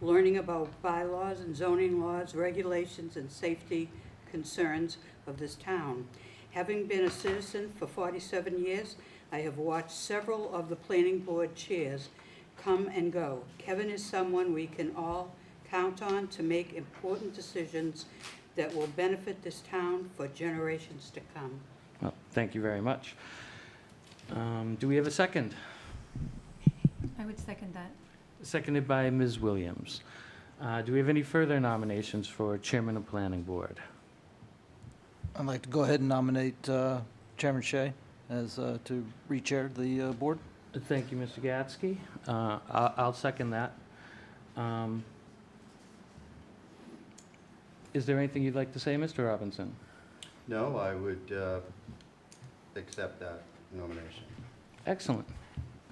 learning about bylaws and zoning laws, regulations, and safety concerns of this town. Having been a citizen for 47 years, I have watched several of the planning board chairs come and go. Kevin is someone we can all count on to make important decisions that will benefit this town for generations to come. Well, thank you very much. Um, Do we have a second? I would second that. Seconded by Ms. Williams. Uh, Do we have any further nominations for Chairman of Planning Board? I'd like to go ahead and nominate uh, Chairman Shea as, uh, to re-chair the uh, board. Thank you, Mr. Gatsky. Uh, I- I'll second that. Um, Is there anything you'd like to say, Mr. Robinson? No, I would uh, accept that nomination. Excellent,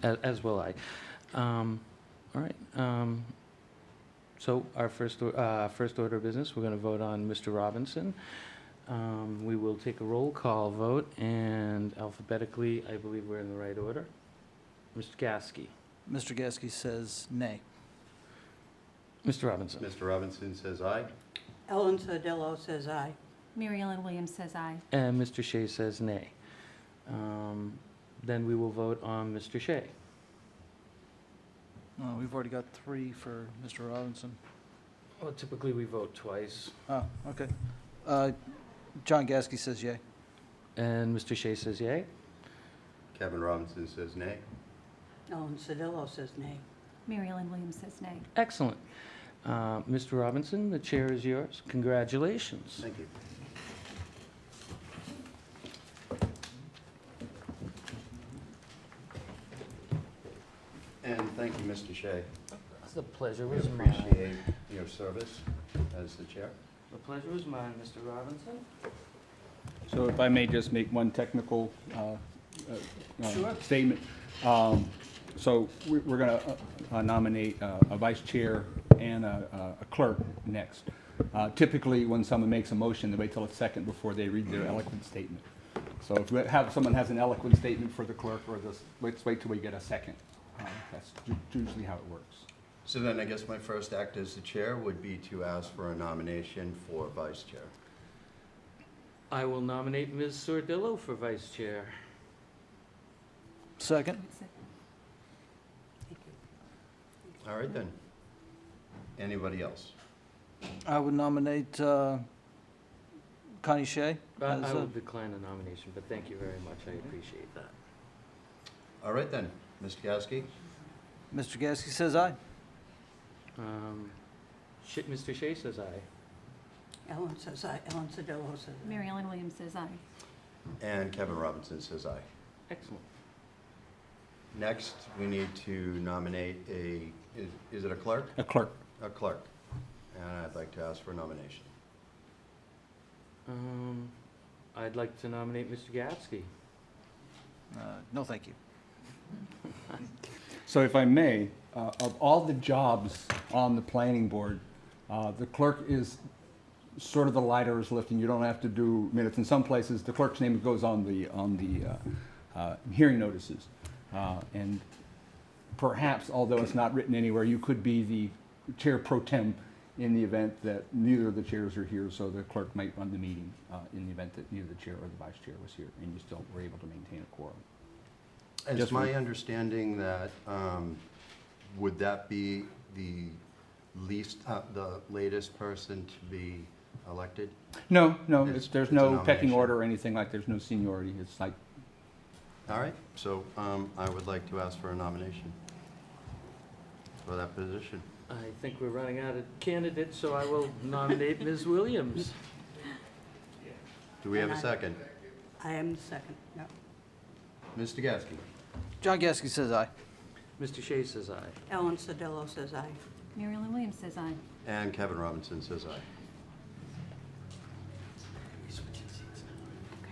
A- as will I. Um, All right, um, so our first, or- uh, first order of business, we're going to vote on Mr. Robinson. Um, We will take a roll call vote, and alphabetically, I believe we're in the right order. Mr. Gasky, Mr. Gasky says nay. Mr. Robinson, Mr. Robinson says aye. Ellen Sodillo says aye. Mary Ellen Williams says aye. and Mr. Shea says nay. Um, Then we will vote on Mr. Shea. Uh, We've already got three for Mr. Robinson. Well, typically, we vote twice. Oh, okay. Uh, John Gasky says yay. And Mr. Shea says yay. Kevin Robinson says nay. Ellen Sodillo says nay. Mary Ellen Williams says nay. Excellent. Uh, Mr. Robinson, the chair is yours. Congratulations. Thank you. And thank you, Mr. Shea. The pleasure We appreciate your service as the chair. The pleasure is mine, Mr. Robinson. So if I may just make one technical uh, uh, uh, Sure. statement. Um, So we- we're going to nominate uh, a vice chair and a a clerk next. Uh, Typically, when someone makes a motion, they wait till a second before they read their eloquent statement. So if we have, someone has an eloquent statement for the clerk or this, let's wait till we get a second. Um, That's ju- usually how it works. So then I guess my first act as the chair would be to ask for a nomination for vice chair. I will nominate Ms. Sordillo for vice chair. I Second? would sec- All right then. Anybody else? I would nominate uh, Connie Shea. But as, I uh, will decline the nomination, but thank you very much. I appreciate that. All right then, Mr. Gasky? Mr. Gasky says aye. Um, Sh- Mr. Shea says aye. Ellen says aye. Ellen Sodillo says aye. Mary Ellen Williams says aye. And Kevin Robinson says aye. Excellent. Next, we need to nominate a, is- is it a clerk? A clerk. A clerk. And I'd like to ask for a nomination. Um, I'd like to nominate Mr. Gatsky. Uh, No, thank you. So if I may, uh, of all the jobs on the planning board, uh, the clerk is sort of the lighter is lifting. You don't have to do minutes. In some places, the clerk's name goes on the, on the uh, uh, hearing notices. Uh, And perhaps, although it's not written anywhere, you could be the chair pro tem in the event that neither of the chairs are here, so the clerk might run the meeting uh, in the event that neither the chair or the vice chair was here, and you still were able to maintain a quorum. It's Just my one. understanding that, um, would that be the least, uh, the latest person to be elected? No, no, It's- it's, there's it's a no pecking nomination. order or anything like, there's no seniority, it's like, All right, so um, I would like to ask for a nomination for that position. I think we're running out of candidates, so I will nominate Ms. Williams. Do we have a And I- second? I am the second, no. Mr. Gasky? John Gasky says aye. Mr. Shea says aye. Ellen Sodillo says aye. Mary Ellen Williams says aye. And Kevin Robinson says aye.